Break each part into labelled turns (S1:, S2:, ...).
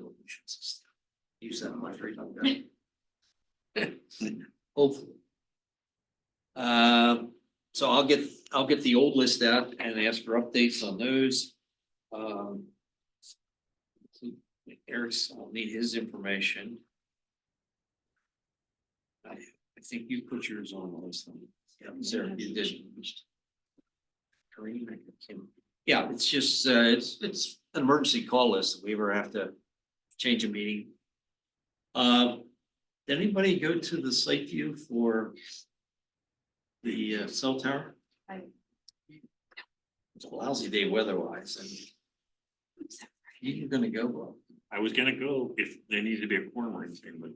S1: resolutions. Use that on my free time. Hopefully. Um, so I'll get, I'll get the old list out and ask for updates on those. Um. Eric's, I'll need his information. I, I think you put yours on the list. then. Yeah, Sarah, you did. Kareem, I can't- Yeah, it's just, uh, it's, it's an emergency call list. If we ever have to change a meeting. Uh, did anybody go to the site view for the uh, cell tower?
S2: I-
S1: It's a lousy day weather-wise, and you're gonna go, well,
S3: I was gonna go if there needed to be a quorum or anything, but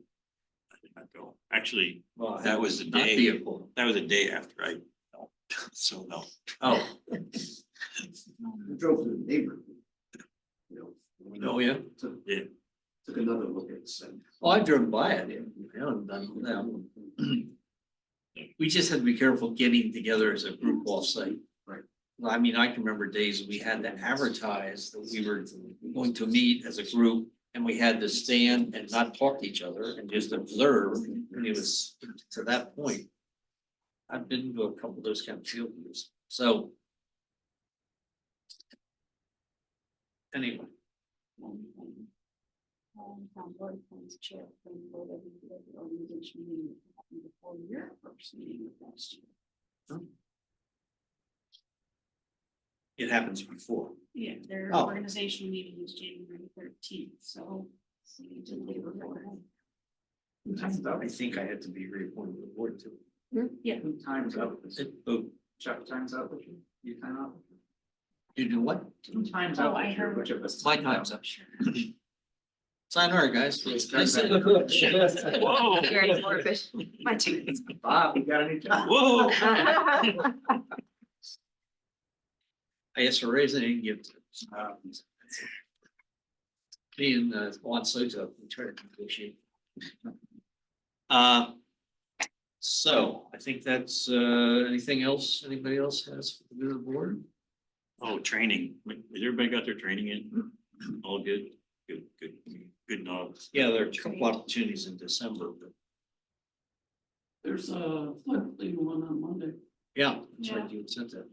S3: I did not go. Actually,
S1: well.
S3: That was the
S1: not
S3: day.
S1: be a pool.
S3: that was a day after I, no, so no.
S1: Oh,
S4: We drove to the neighborhood. You know, we
S1: oh, yeah,
S4: took,
S3: Yeah.
S4: took another look at it, and
S1: well, I've driven by it, yeah, I haven't done
S4: Mm-hmm.
S1: that. We just had to be careful getting together as a group offsite.
S4: Right.
S1: Well, I mean, I can remember days we had to advertise that we were going to meet as a group, and we had to stand and not talk to each other and just observe, and it was to that point. I've been to a couple of those kind of field views, so. Anyway.
S2: um, town board appoints chair for the board of the board of the organization meeting that happened before your first meeting of last year.
S1: It happens before.
S2: Yeah, their
S1: Oh.
S2: organizational meeting is January thirteenth, so. so you did leave it before.
S1: I thought- I think I had to be reappointed to the board too.
S2: Yeah,
S4: time's up, Is it-
S1: It- oh,
S4: Chuck, time's up with you, you time out?
S1: You do what?
S4: Two times
S2: Oh,
S4: up,
S2: I
S4: with you,
S2: heard-
S4: which of us?
S1: My time's up.
S2: sure.
S1: Sign our guys.
S4: Yes,
S1: Nice
S4: guys.
S1: to-
S3: Whoa,
S2: You're already more efficient. My two.
S4: Bob, you got any time?
S3: whoa.
S1: I asked for raise and didn't give. to them.
S4: Um,
S1: Me and uh, Juan Soto, we tried to negotiate. Uh, So I think that's, uh, anything else, anybody else has for the good of the board?
S3: Oh, training. Has everybody got their training in? All good? Good, good, good nod.
S1: Yeah, there are a couple opportunities in December, but
S5: There's a floodplain one on Monday.
S1: yeah, that's right, you had said that.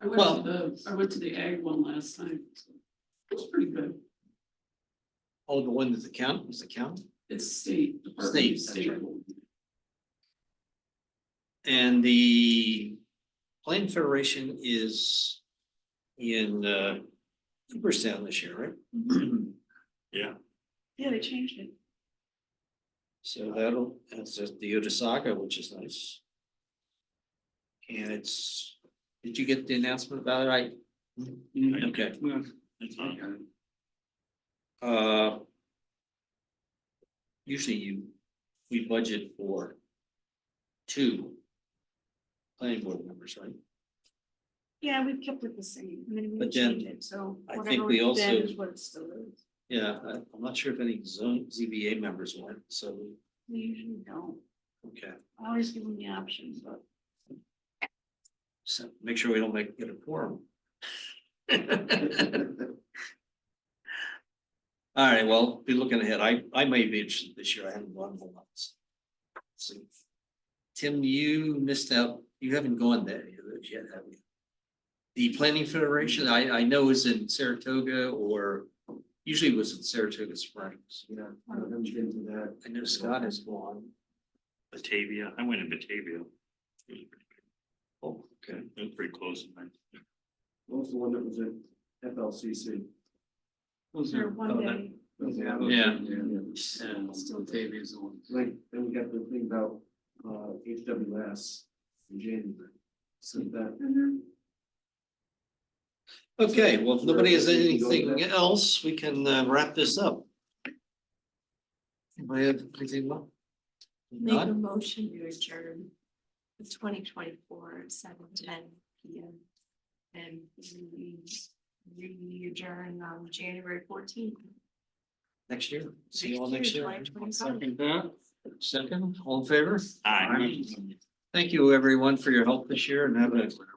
S5: I went
S1: Well-
S5: to the, I went to the ag one last time. It was pretty good.
S1: Oh, the one that the count, was the count?
S5: It's state. Department of
S1: State, that's right.
S5: one.
S1: And the Plan Federation is in uh Cooperstown this year, right?
S3: Yeah,
S2: Yeah, they changed it.
S1: So that'll, that's at the Otisaka, which is nice. And it's, did you get the announcement about it? I,
S4: Mm-hmm.
S1: okay,
S3: that's not,
S1: uh. Usually you, we budget for two planning board members, right?
S2: Yeah, we've kept it the same, I mean, we
S1: But then,
S2: changed it, so
S1: I think
S2: whatever
S1: we
S2: we've
S1: also-
S2: been is what it still is.
S1: Yeah, I- I'm not sure if any zone ZBA members went, so,
S2: We usually don't,
S1: okay.
S2: I always give them the option, but.
S1: So make sure we don't make it a quorum. All right, well, be looking ahead. I, I may be interested this year. I haven't gone for months. See. Tim, you missed out. You haven't gone there yet, have you? The Planning Federation, I, I know is in Saratoga or usually it was in Saratoga Springs.
S4: Yeah, I haven't been to that.
S1: I know Scott has gone.
S3: Batavia. I went in Batavia. It was pretty good.
S1: Oh, okay.
S3: It was pretty close.
S4: What was the one that was at FLCC?
S2: Or one
S1: Oh, that-
S2: day,
S1: Yeah.
S4: Yeah.
S5: Still Davies one.
S4: Like, then we got the thing about, uh, HWS in January, so that.
S1: Okay, well, if nobody has anything else, we can uh, wrap this up. Anybody have anything more?
S6: Make a
S1: None?
S6: motion to adjourn the twenty twenty-four, seven ten P M. And we we adjourn on January fourteenth.
S1: Next year, see you all next year.
S6: Second
S1: Second, all in favor?
S3: Hi.
S1: Thank you, everyone, for your help this year and have a